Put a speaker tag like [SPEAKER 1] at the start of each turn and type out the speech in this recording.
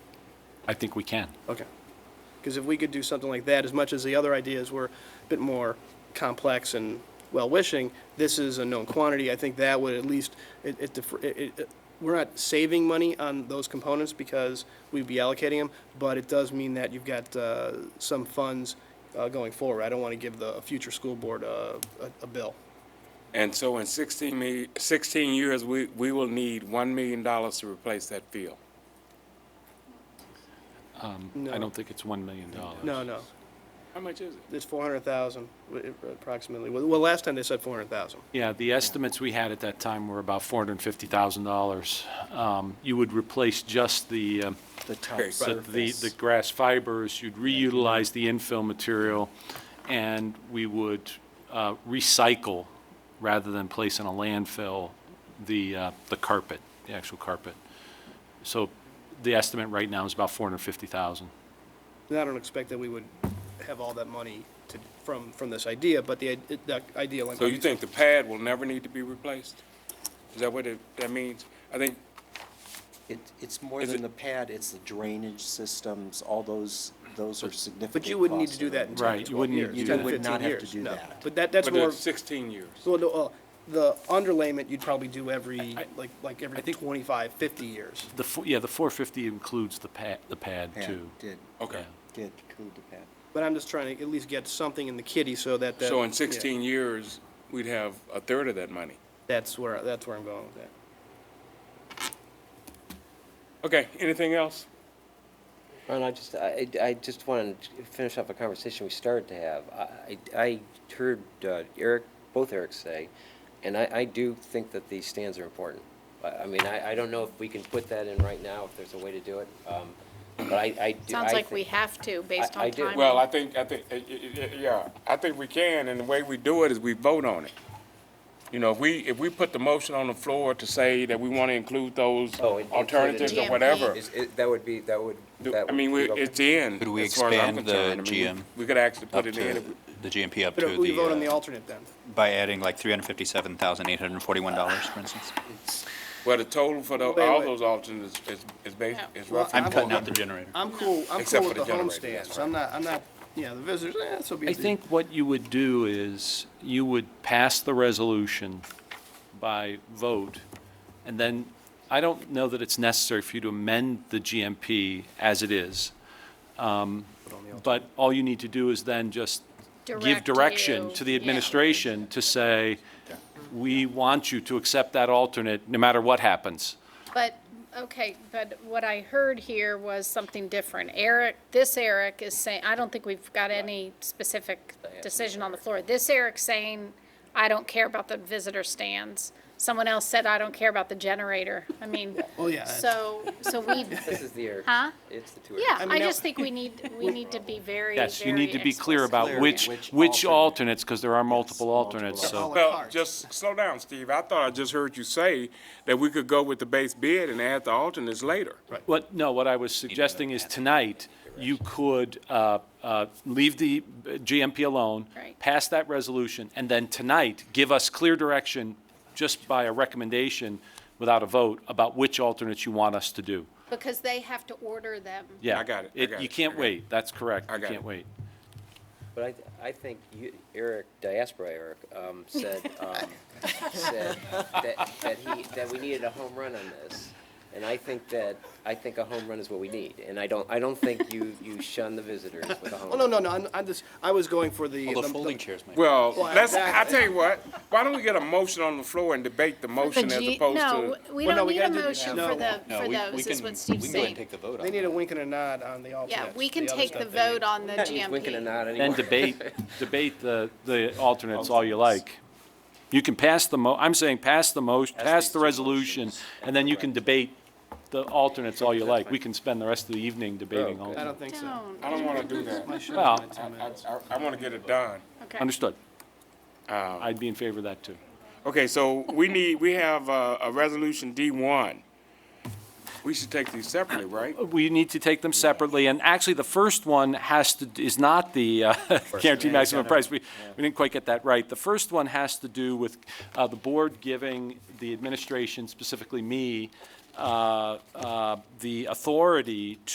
[SPEAKER 1] I think we can.
[SPEAKER 2] Okay. Because if we could do something like that, as much as the other ideas were a bit more complex and well-wishing, this is a known quantity. I think that would at least, it, it, defer- it, it- it- we're not saving money on those components because we'd be allocating them, but it does mean that you've got, uh, some funds, uh, going forward. I don't want to give the future school board a, a, a bill.
[SPEAKER 3] And so in 16 me- 16 years, we, we will need $1 million to replace that field.
[SPEAKER 1] I
[SPEAKER 2] No.
[SPEAKER 1] don't think it's $1 million.
[SPEAKER 2] No, no.
[SPEAKER 3] How much is it?
[SPEAKER 2] It's four hundred thousand approximately. Well, well, last time they said four hundred thousand.
[SPEAKER 1] Yeah, the estimates we had at that time were about $450,000. Um, You would replace just the, um,
[SPEAKER 4] The top
[SPEAKER 3] Okay, so
[SPEAKER 1] the, the the grass fibers, you'd reutilize the infill material, and we would uh, recycle, rather than place in a landfill, the, uh, the carpet, the actual carpet. So the estimate right now is about 450,000.
[SPEAKER 2] And I don't expect that we would have all that money to, from, from this idea, but the, i- the idea, like.
[SPEAKER 3] So you think the pad will never need to be replaced? Is that what it, that means? I think,
[SPEAKER 4] It, it's more
[SPEAKER 3] Is
[SPEAKER 4] than
[SPEAKER 3] it-
[SPEAKER 4] the pad, it's the drainage systems, all those, those are significant
[SPEAKER 2] But you wouldn't need to
[SPEAKER 4] cost
[SPEAKER 2] do that in
[SPEAKER 4] elements.
[SPEAKER 1] Right,
[SPEAKER 2] ten
[SPEAKER 1] you
[SPEAKER 2] to twelve
[SPEAKER 1] wouldn't need to
[SPEAKER 2] years.
[SPEAKER 1] do
[SPEAKER 2] 10
[SPEAKER 1] that.
[SPEAKER 4] You would not
[SPEAKER 2] 15
[SPEAKER 4] have to
[SPEAKER 2] years,
[SPEAKER 4] do
[SPEAKER 2] no.
[SPEAKER 4] that.
[SPEAKER 2] But that, that's
[SPEAKER 3] but
[SPEAKER 2] more,
[SPEAKER 3] it's 16 years.
[SPEAKER 2] well, no, uh, the underlayment, you'd probably do every,
[SPEAKER 1] I-
[SPEAKER 2] like, like every
[SPEAKER 1] I think-
[SPEAKER 2] 25, 50 years.
[SPEAKER 1] The, fo- yeah, the 450 includes the pad, the pad,
[SPEAKER 4] Pad
[SPEAKER 1] too.
[SPEAKER 4] Did,
[SPEAKER 3] Okay.
[SPEAKER 1] Yeah.
[SPEAKER 4] did include the pad.
[SPEAKER 2] But I'm just trying to at least get something in the kitty so that. that-
[SPEAKER 3] So in
[SPEAKER 2] yeah,
[SPEAKER 3] 16 years, we'd have a third of that money.
[SPEAKER 2] That's where, that's where I'm going with that.
[SPEAKER 3] Okay, anything else?
[SPEAKER 5] Ron, I just, I, I I just wanted to finish off a conversation we started to have. I, I I heard uh, Eric, both Erics say, and I, I do think that these stands are important. I, I mean, I, I don't know if we can put that in right now, if there's a way to do it, um, but I, I. do-
[SPEAKER 6] Sounds
[SPEAKER 5] I
[SPEAKER 6] like we
[SPEAKER 5] think-
[SPEAKER 6] have to, based
[SPEAKER 5] I- I
[SPEAKER 6] on
[SPEAKER 5] do.
[SPEAKER 6] timing.
[SPEAKER 3] Well, I think, I think, eh, eh, eh, yeah, I think we can, and the way we do it is we vote on it. You know, if we, if we put the motion on the floor to say that we want to include those
[SPEAKER 5] Oh, it- it's
[SPEAKER 3] alternatives or
[SPEAKER 6] included.
[SPEAKER 3] whatever,
[SPEAKER 5] Is, it- that would be, that would,
[SPEAKER 3] do-
[SPEAKER 5] that would.
[SPEAKER 3] I mean,
[SPEAKER 5] be
[SPEAKER 3] we-
[SPEAKER 5] okay.
[SPEAKER 3] it's in,
[SPEAKER 7] Could we
[SPEAKER 3] as far as I'm
[SPEAKER 7] expand the
[SPEAKER 3] concerned. I mean, we-
[SPEAKER 7] GM
[SPEAKER 3] We could actually
[SPEAKER 7] up
[SPEAKER 3] put it in.
[SPEAKER 7] to,
[SPEAKER 3] if we-
[SPEAKER 7] the GMP up to
[SPEAKER 2] But if we vote on the
[SPEAKER 7] the, uh,
[SPEAKER 2] alternate then.
[SPEAKER 7] by adding like $357,841, for instance.
[SPEAKER 3] Well, the total for the,
[SPEAKER 2] Wait,
[SPEAKER 3] all
[SPEAKER 2] wait.
[SPEAKER 3] those alternates is, is bas is
[SPEAKER 2] Well,
[SPEAKER 3] roughly.
[SPEAKER 7] I'm
[SPEAKER 2] I'm
[SPEAKER 7] cutting
[SPEAKER 2] all-
[SPEAKER 7] out the generator.
[SPEAKER 2] I'm cool, I'm
[SPEAKER 3] Except
[SPEAKER 2] cool
[SPEAKER 3] for
[SPEAKER 2] with the
[SPEAKER 3] the generator,
[SPEAKER 2] homesteads.
[SPEAKER 3] that's
[SPEAKER 2] I'm not, I'm not, yeah, the visitors, eh, so be
[SPEAKER 1] I
[SPEAKER 2] it.
[SPEAKER 1] think what you would do is, you would pass the resolution by vote, and then, I don't know that it's necessary for you to amend the GMP as it is. Um, But all you need to do is then just give
[SPEAKER 6] Direct
[SPEAKER 1] direction
[SPEAKER 6] you,
[SPEAKER 1] to the
[SPEAKER 6] yeah.
[SPEAKER 1] administration to say, we want you to accept that alternate, no matter what happens.
[SPEAKER 6] But, okay, but what I heard here was something different. Eric, this Eric is saying, I don't think we've got any specific decision on the floor. This Eric's saying, I don't care about the visitor stands. Someone else said, I don't care about the generator. I mean,
[SPEAKER 5] Oh,
[SPEAKER 2] Well, yeah, that's-
[SPEAKER 6] so, so we,
[SPEAKER 5] This is the Eric.
[SPEAKER 6] Huh?
[SPEAKER 5] It's the two. Erics.
[SPEAKER 6] yeah,
[SPEAKER 2] mean,
[SPEAKER 6] I
[SPEAKER 2] now-
[SPEAKER 6] just think we need, we need to be very, very
[SPEAKER 1] Yes, you need to be clear
[SPEAKER 6] explicit.
[SPEAKER 1] about
[SPEAKER 4] Clear
[SPEAKER 1] which,
[SPEAKER 4] which
[SPEAKER 1] which
[SPEAKER 4] alternate.
[SPEAKER 1] alternates, because there are multiple
[SPEAKER 4] multiple
[SPEAKER 1] alternates, so.
[SPEAKER 2] alternates.
[SPEAKER 3] Well,
[SPEAKER 2] Cards.
[SPEAKER 3] just slow down, Steve. I thought I just heard you say that we could go with the base bid and add the alternates later.
[SPEAKER 1] What, no, what I was suggesting is tonight, you could uh, uh, leave the GMP alone,
[SPEAKER 6] Right.
[SPEAKER 1] pass that resolution, and then tonight, give us clear direction just by a recommendation without a vote about which alternates you want us to do.
[SPEAKER 6] Because they have to order them.
[SPEAKER 1] Yeah.
[SPEAKER 3] I got it, I got
[SPEAKER 1] You
[SPEAKER 3] it, I
[SPEAKER 1] can't
[SPEAKER 3] got it.
[SPEAKER 1] wait, that's correct.
[SPEAKER 3] I got
[SPEAKER 1] You can't
[SPEAKER 3] it.
[SPEAKER 1] wait.
[SPEAKER 5] But I, I think you, Eric, diaspora Eric, um, said, um, said that, that he, that we needed a home run on this. And I think that, I think a home run is what we need, and I don't, I don't think you, you shun the visitors with a home
[SPEAKER 2] Oh,
[SPEAKER 5] run.
[SPEAKER 2] no, no, no, I'm, I'm just, I was going for the.
[SPEAKER 7] Well, the folding chairs might.
[SPEAKER 3] Well,
[SPEAKER 2] Well,
[SPEAKER 3] let's, I
[SPEAKER 2] exactly.
[SPEAKER 3] tell you what, why don't we get a motion on the floor and debate the motion as
[SPEAKER 6] G-
[SPEAKER 3] opposed
[SPEAKER 6] No,
[SPEAKER 3] to?
[SPEAKER 6] we
[SPEAKER 2] Well, no,
[SPEAKER 6] don't
[SPEAKER 2] we
[SPEAKER 6] need a
[SPEAKER 2] gotta do-
[SPEAKER 6] motion
[SPEAKER 2] no.
[SPEAKER 6] for the,
[SPEAKER 7] No,
[SPEAKER 6] for
[SPEAKER 7] we-
[SPEAKER 6] those,
[SPEAKER 7] we
[SPEAKER 6] is
[SPEAKER 7] can-
[SPEAKER 6] what Steve's
[SPEAKER 7] We can go ahead
[SPEAKER 6] saying.
[SPEAKER 7] and take the vote on
[SPEAKER 2] They need
[SPEAKER 7] that.
[SPEAKER 2] a wink and a nod on the alternates.
[SPEAKER 6] Yeah, we can
[SPEAKER 2] other
[SPEAKER 6] take
[SPEAKER 2] stuff
[SPEAKER 6] the
[SPEAKER 2] they need.
[SPEAKER 6] vote on the
[SPEAKER 5] He's winking and
[SPEAKER 6] GMP.
[SPEAKER 5] nodding
[SPEAKER 1] Then
[SPEAKER 5] anymore.
[SPEAKER 1] debate, debate the, the alternates all you like. You can pass the mo, I'm saying pass the motion, pass the resolution, and then you can debate the alternates all you like. We can spend the rest of the evening debating
[SPEAKER 5] Okay.
[SPEAKER 1] alternates.
[SPEAKER 2] I don't think so.
[SPEAKER 6] Don't,
[SPEAKER 3] I don't want to do that.
[SPEAKER 2] I should
[SPEAKER 1] Well,
[SPEAKER 2] have my two
[SPEAKER 3] I,
[SPEAKER 2] minutes.
[SPEAKER 3] I, I want to get it done.
[SPEAKER 6] okay.
[SPEAKER 1] Understood. I'd be in favor of that, too.
[SPEAKER 3] Okay, so we need, we have a, a resolution D one. We should take these separately, right?
[SPEAKER 1] We need to take them separately, and actually, the first one has to, is not the uh, guaranteed maximum price. We, we didn't quite get that right. The first one has to do with uh, the board giving the administration, specifically me, uh, uh, the authority